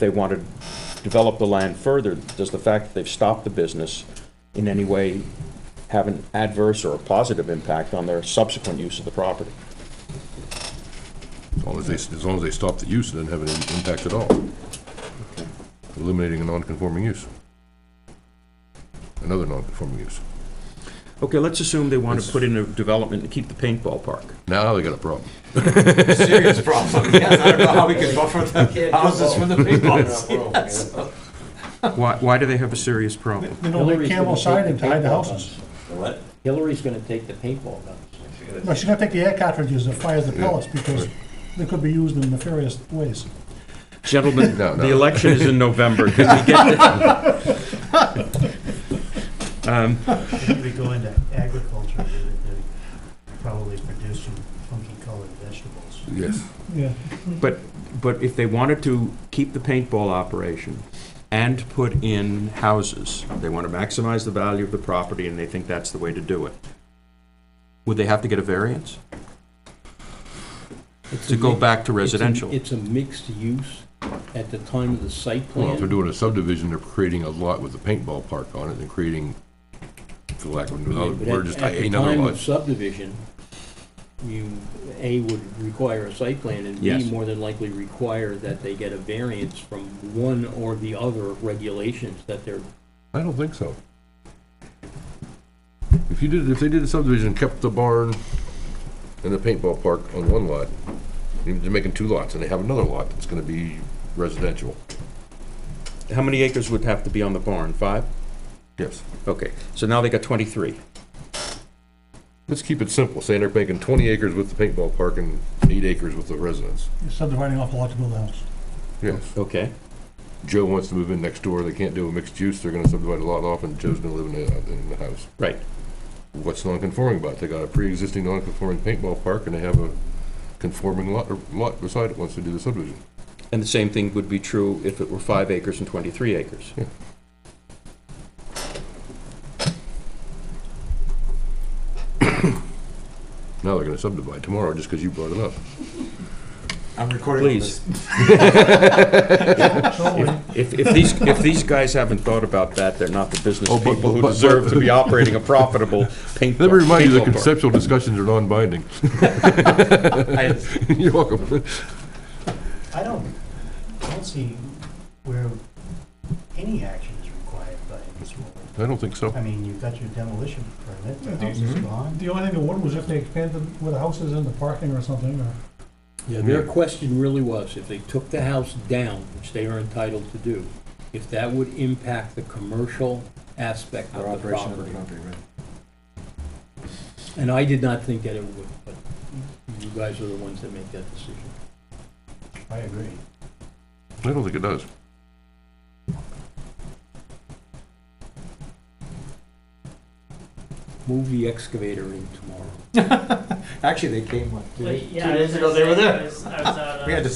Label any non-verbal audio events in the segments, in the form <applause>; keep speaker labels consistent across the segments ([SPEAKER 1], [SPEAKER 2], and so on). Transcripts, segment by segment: [SPEAKER 1] they want to develop the land further, does the fact that they've stopped the business in any way have an adverse or a positive impact on their subsequent use of the property?
[SPEAKER 2] As long as they, as long as they stop the use, it doesn't have any impact at all. Eliminating a non-conforming use. Another non-conforming use.
[SPEAKER 1] Okay, let's assume they want to put in a development and keep the paintball park.
[SPEAKER 2] Now they got a problem.
[SPEAKER 3] serious <laughs> problem. Yes, I don't know how we can
[SPEAKER 4] <laughs>
[SPEAKER 3] buffer the houses with the people. Yes.
[SPEAKER 1] Why, why do they have a serious problem?
[SPEAKER 5] They don't
[SPEAKER 4] Hillary's
[SPEAKER 5] make camel
[SPEAKER 4] gonna
[SPEAKER 5] siding
[SPEAKER 4] take
[SPEAKER 5] to hide the
[SPEAKER 4] paintball
[SPEAKER 5] houses.
[SPEAKER 3] What?
[SPEAKER 4] guns. Hillary's gonna take the paintball guns.
[SPEAKER 5] No, she's gonna take the air cartridges that fires the pellets because they could be used in nefarious ways.
[SPEAKER 1] <laughs> Gentlemen,
[SPEAKER 2] No,
[SPEAKER 1] the
[SPEAKER 2] no.
[SPEAKER 1] election is in November. <laughs> Can we get
[SPEAKER 6] If we go into agriculture, they're, they're probably producing funky colored vegetables.
[SPEAKER 2] Yes.
[SPEAKER 5] Yeah.
[SPEAKER 1] But, but if they wanted to keep the paintball operation and put in houses, they want to maximize the value of the property and they think that's the way to do it, would they have to get a variance? To go back to
[SPEAKER 4] It's a-
[SPEAKER 1] residential?
[SPEAKER 4] It's a mixed use at the time of the site
[SPEAKER 2] Well, if they're
[SPEAKER 4] plan.
[SPEAKER 2] doing a subdivision, they're creating a lot with a paintball park on it and creating, for lack of another
[SPEAKER 4] But at-
[SPEAKER 2] word, just
[SPEAKER 4] at the
[SPEAKER 2] another
[SPEAKER 4] time of
[SPEAKER 2] lot.
[SPEAKER 4] Subdivision, you, A, would require a site plan, and
[SPEAKER 1] Yes.
[SPEAKER 4] B, more than likely require that they get a variance from one or the other regulations that they're,
[SPEAKER 2] I don't think so. If you did, if they did a subdivision, kept the barn and the paintball park on one lot, they're making two lots, and they have another lot that's gonna be residential.
[SPEAKER 1] How many acres would have to be on the barn? Five?
[SPEAKER 2] Yes.
[SPEAKER 1] Okay, so now they got 23.
[SPEAKER 2] Let's keep it simple, saying they're making twenty acres with the paintball park and eight acres with the residence.
[SPEAKER 5] You're subdividing off a lot to build a house.
[SPEAKER 2] Yes.
[SPEAKER 1] Okay.
[SPEAKER 2] Joe wants to move in next door, they can't do a mixed use, they're gonna subdivide a lot off, and Joe's gonna live in the, in the house.
[SPEAKER 1] Right.
[SPEAKER 2] What's non-conforming about it? They got a pre-existing non-conforming paintball park, and they have a conforming lot, lot beside it once they do the subdivision.
[SPEAKER 1] And the same thing would be true if it were five acres and 23 acres.
[SPEAKER 2] Yeah. Now they're gonna subdivide tomorrow, just because you brought it up.
[SPEAKER 3] I'm recording all
[SPEAKER 1] Please.
[SPEAKER 3] this.
[SPEAKER 1] If, if these, if these guys haven't thought about that, they're not the business
[SPEAKER 2] Oh, but-
[SPEAKER 1] people who
[SPEAKER 2] but- but-
[SPEAKER 1] deserve to be operating a profitable paint.
[SPEAKER 2] Let me remind you, the
[SPEAKER 1] paintball park.
[SPEAKER 2] conceptual discussions are non-binding. <laughs>
[SPEAKER 3] I-
[SPEAKER 2] You're <laughs> welcome.
[SPEAKER 6] I don't, I don't see where any action is required by this rule.
[SPEAKER 2] I don't think so.
[SPEAKER 6] I mean, you've got your demolition permit, the
[SPEAKER 5] Yeah,
[SPEAKER 6] house is
[SPEAKER 3] Mm-hmm.
[SPEAKER 1] mhm.
[SPEAKER 6] gone.
[SPEAKER 5] The only thing that would was if they expanded where the house is in the parking or something, or
[SPEAKER 4] yeah, their question really was, if they took the house down, which they are entitled to do, if that would impact the commercial aspect
[SPEAKER 3] Our
[SPEAKER 4] of the
[SPEAKER 3] operation of the
[SPEAKER 4] property.
[SPEAKER 3] property, right.
[SPEAKER 4] And I did not think that it would, but you guys are the ones that make that decision.
[SPEAKER 6] I agree.
[SPEAKER 2] I don't think it does.
[SPEAKER 4] Move the excavator in tomorrow.
[SPEAKER 3] Actually, they came like two
[SPEAKER 7] Like,
[SPEAKER 3] two
[SPEAKER 7] yeah, I
[SPEAKER 3] days
[SPEAKER 7] was
[SPEAKER 3] ago,
[SPEAKER 7] gonna
[SPEAKER 3] they were
[SPEAKER 7] say, I
[SPEAKER 3] there.
[SPEAKER 7] was- I was at,
[SPEAKER 3] <laughs> We had
[SPEAKER 7] uh,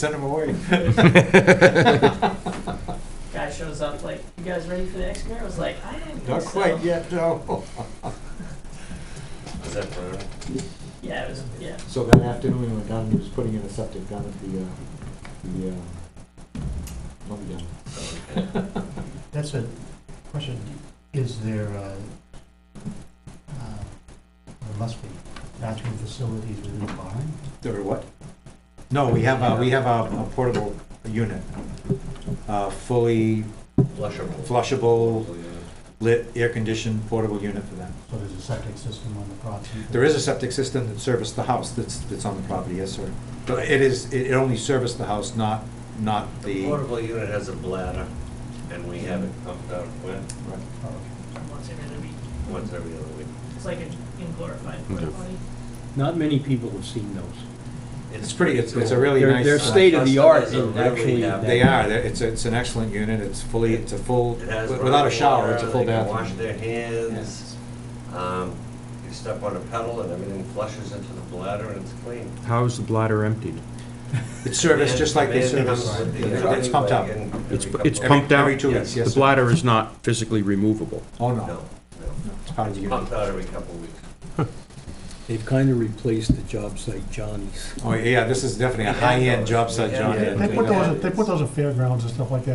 [SPEAKER 3] to send them away.
[SPEAKER 7] Guy shows up like, you guys ready for the excavator? I was like, I don't think
[SPEAKER 3] Not
[SPEAKER 7] so."
[SPEAKER 3] quite yet, no. Is that
[SPEAKER 7] Yeah, it was, yeah.
[SPEAKER 3] So that afternoon, we went down, he was putting in a septic down at the, uh, the, uh, lumber down.
[SPEAKER 6] That's a question, is there, uh, uh, there must be bathroom facilities within the barn?
[SPEAKER 3] Or what? No, we have a, we have a a portable unit, a fully. Flushable. Flushable, lit, air-conditioned portable unit for them.
[SPEAKER 6] So there's a septic system on the property?
[SPEAKER 3] There is a septic system that serviced the house that's, that's on the property, yes, sir. But it is, it it only serviced the house, not, not the.
[SPEAKER 8] Portable unit has a bladder, and we have it pumped out when,
[SPEAKER 3] Right.
[SPEAKER 6] Oh, okay.
[SPEAKER 7] Once every other week.
[SPEAKER 8] once every other week.
[SPEAKER 7] It's like a in glorified porta
[SPEAKER 2] Okay.
[SPEAKER 7] potty.
[SPEAKER 4] Not many people have seen those.
[SPEAKER 3] It's pretty, it's, it's a really
[SPEAKER 4] They're-
[SPEAKER 3] nice.
[SPEAKER 4] they're
[SPEAKER 3] uh,
[SPEAKER 4] state- of the art
[SPEAKER 8] Customers are
[SPEAKER 4] in
[SPEAKER 8] really
[SPEAKER 4] actually
[SPEAKER 8] happy.
[SPEAKER 3] They are, They're- it's, it's an excellent unit, it's fully, it's a full,
[SPEAKER 8] It has
[SPEAKER 3] without a
[SPEAKER 8] running
[SPEAKER 3] shower,
[SPEAKER 8] water,
[SPEAKER 3] it's a full
[SPEAKER 8] they can Wash
[SPEAKER 3] bathroom.
[SPEAKER 8] their hands. Um, You step on a pedal and everything flushes into the bladder and it's clean.
[SPEAKER 1] How is the bladder emptied?
[SPEAKER 3] It's serviced just like they
[SPEAKER 8] And it comes
[SPEAKER 3] service,
[SPEAKER 8] with the
[SPEAKER 3] It- it's pumped up.
[SPEAKER 8] truck and every
[SPEAKER 1] It's,
[SPEAKER 8] couple
[SPEAKER 1] it's
[SPEAKER 8] of-
[SPEAKER 1] pumped out?
[SPEAKER 3] every two weeks, yes,
[SPEAKER 1] The
[SPEAKER 3] sir.
[SPEAKER 1] bladder is not physically removable.
[SPEAKER 3] Oh, no,
[SPEAKER 8] No,
[SPEAKER 3] no,
[SPEAKER 8] no.
[SPEAKER 3] it's part of the
[SPEAKER 8] It's
[SPEAKER 3] unit.
[SPEAKER 8] pumped out every couple of weeks.
[SPEAKER 4] They've kind of replaced the job site Johnny's.
[SPEAKER 3] Oh, yeah, this is definitely a high-end job site, John.
[SPEAKER 8] Yeah.
[SPEAKER 5] they put those, they put those at fairgrounds and stuff like that.